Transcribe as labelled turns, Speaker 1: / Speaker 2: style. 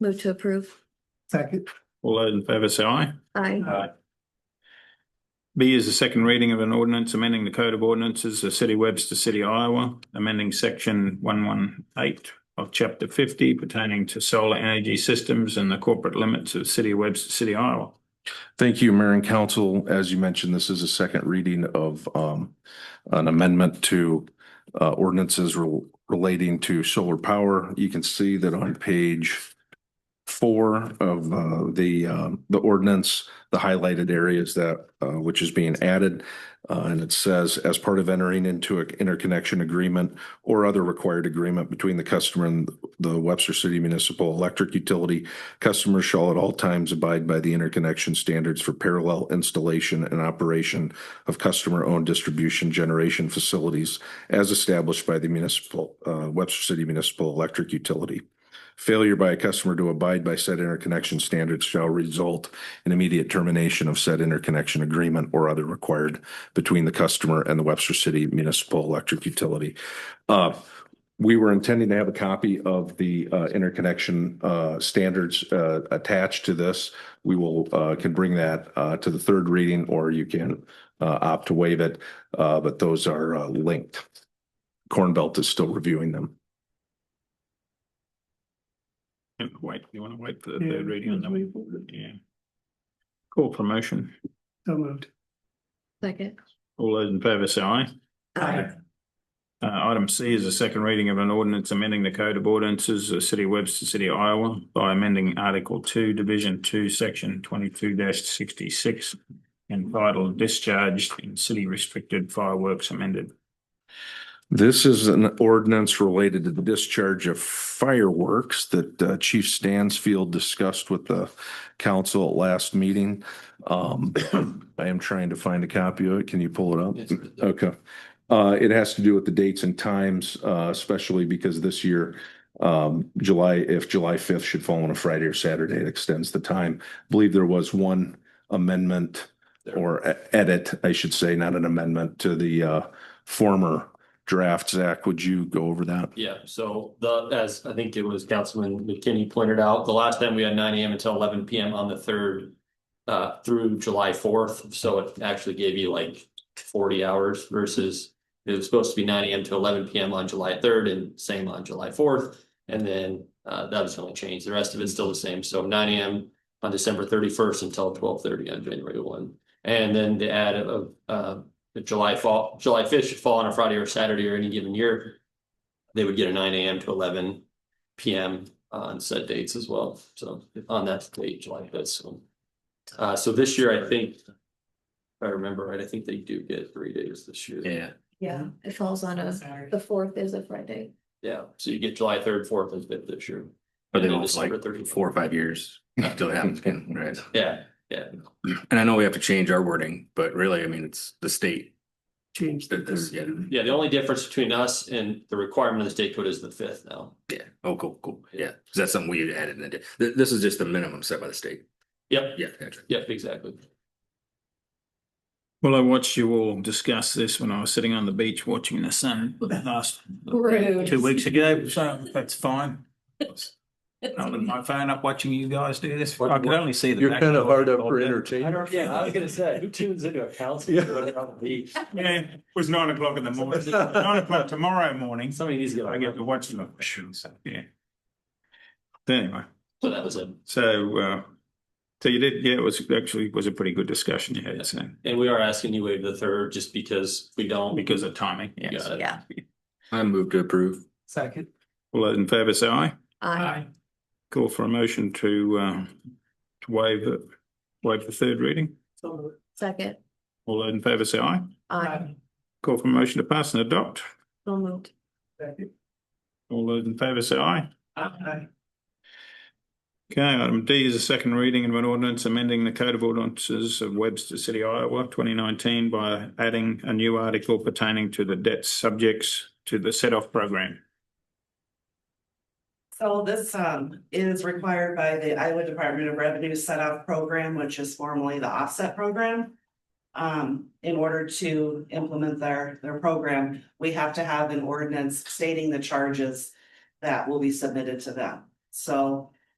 Speaker 1: Move to approve.
Speaker 2: Second.
Speaker 3: All those in favour say aye.
Speaker 1: Aye.
Speaker 3: Aye. B is the second reading of an ordinance amending the Code of Ordinances of City Webster City, Iowa, amending section one one eight of chapter fifty pertaining to solar energy systems and the corporate limits of City of Webster City, Iowa.
Speaker 4: Thank you, Mayor and Council. As you mentioned, this is a second reading of um, an amendment to uh, ordinances rel- relating to solar power. You can see that on page four of uh, the um, the ordinance, the highlighted areas that uh, which is being added. Uh, And it says, as part of entering into an interconnection agreement or other required agreement between the customer and the Webster City Municipal Electric Utility Customers shall at all times abide by the interconnection standards for parallel installation and operation of customer-owned distribution generation facilities as established by the municipal, uh, Webster City Municipal Electric Utility. Failure by a customer to abide by said interconnection standards shall result in immediate termination of said interconnection agreement or other required between the customer and the Webster City Municipal Electric Utility. Uh, we were intending to have a copy of the uh, interconnection uh, standards uh, attached to this. We will, uh, can bring that uh, to the third reading, or you can uh, opt to waive it, uh, but those are uh, linked. Corn Belt is still reviewing them.
Speaker 3: Wait, you want to wait for the third reading on that one? Yeah. Call for motion.
Speaker 2: So moved.
Speaker 1: Second.
Speaker 3: All those in favour say aye.
Speaker 2: Aye.
Speaker 3: Uh, item C is a second reading of an ordinance amending the Code of Ordinances of City of Webster City, Iowa by amending Article two, Division two, Section twenty-two sixty-six entitled Discharged in City Restricted Fireworks amended.
Speaker 4: This is an ordinance related to the discharge of fireworks that uh, Chief Stansfield discussed with the council at last meeting. Um, I am trying to find a copy of it. Can you pull it up? Okay. Uh, it has to do with the dates and times, uh, especially because this year, um, July, if July fifth should fall on a Friday or Saturday, it extends the time. I Believe there was one amendment or e- edit, I should say, not an amendment to the, uh, former draft. Zach, would you go over that?
Speaker 5: Yeah, so the, as I think it was Councilman McKinney pointed out, the last time we had nine AM until eleven PM on the third. Uh, through July fourth, so it actually gave you like forty hours versus. It was supposed to be nine AM to eleven PM on July third and same on July fourth. And then uh, that was the only change. The rest of it's still the same. So nine AM on December thirty first until twelve thirty on January one. And then the add of uh, the July fall, July fifth should fall on a Friday or Saturday or any given year they would get a nine AM to eleven PM on set dates as well, so on that date, July fifth, so. Uh, so this year, I think, if I remember right, I think they do get three days this year.
Speaker 6: Yeah.
Speaker 1: Yeah, it falls on a, the fourth is a Friday.
Speaker 5: Yeah, so you get July third, fourth, and fifth this year.
Speaker 6: But then
Speaker 5: And
Speaker 6: it's like
Speaker 5: December 31st.
Speaker 6: four or five years until it happens again, right?
Speaker 5: Yeah, yeah,
Speaker 6: And I know we have to change our wording, but really, I mean, it's the state
Speaker 2: Change.
Speaker 6: that this, yeah,
Speaker 5: yeah, the only difference between us and the requirement of the state code is the fifth now.
Speaker 6: yeah. Oh, cool, cool. Yeah. Is that something we had added? in the- Th- This is just the minimum set by the state.
Speaker 5: Yep,
Speaker 6: Yeah. gotcha.
Speaker 5: yep, exactly.
Speaker 3: Well, I watched you all discuss this when I was sitting on the beach watching the sun last
Speaker 1: Rude.
Speaker 3: two weeks ago, so that's fine. I with my phone up watching you guys do this. I could only see the.
Speaker 7: You're
Speaker 3: back
Speaker 7: kind of
Speaker 3: door.
Speaker 7: hard up for entertainment.
Speaker 5: gonna say, who tunes into a council?
Speaker 7: Yeah.
Speaker 3: Yeah, it was nine o'clock in the morning, nine o'clock tomorrow morning.
Speaker 5: Somebody needs to
Speaker 3: I get to watch them. Yeah. Anyway,
Speaker 5: So that was it.
Speaker 3: so, uh, so you did, yeah, it was actually, was a pretty good discussion you had, so,
Speaker 5: And we are asking you waive the third just because we don't.
Speaker 3: because of timing, yes.
Speaker 5: Got it.
Speaker 1: Yeah.
Speaker 6: I move to approve.
Speaker 2: Second.
Speaker 3: All those in favour say aye.
Speaker 1: Aye.
Speaker 3: Call for a motion to, uh, to waive, it- waive the third reading.
Speaker 2: So moved.
Speaker 1: Second.
Speaker 3: All those in favour say aye.
Speaker 1: Aye.
Speaker 3: Call for a motion to pass and adopt.
Speaker 1: So moved.
Speaker 2: Second.
Speaker 3: All those in favour say aye.
Speaker 2: Aye.
Speaker 3: Okay, item D is a second reading of an ordinance amending the Code of Ordinances of Webster City, Iowa, twenty nineteen by adding a new article pertaining to the debt subjects to the set-off program.
Speaker 8: So this um is required by the Iowa Department of Revenue Set Off Program, which is formerly the Offset Program. Um, in order to implement their their program, we have to have an ordinance stating the charges that will be submitted to them. So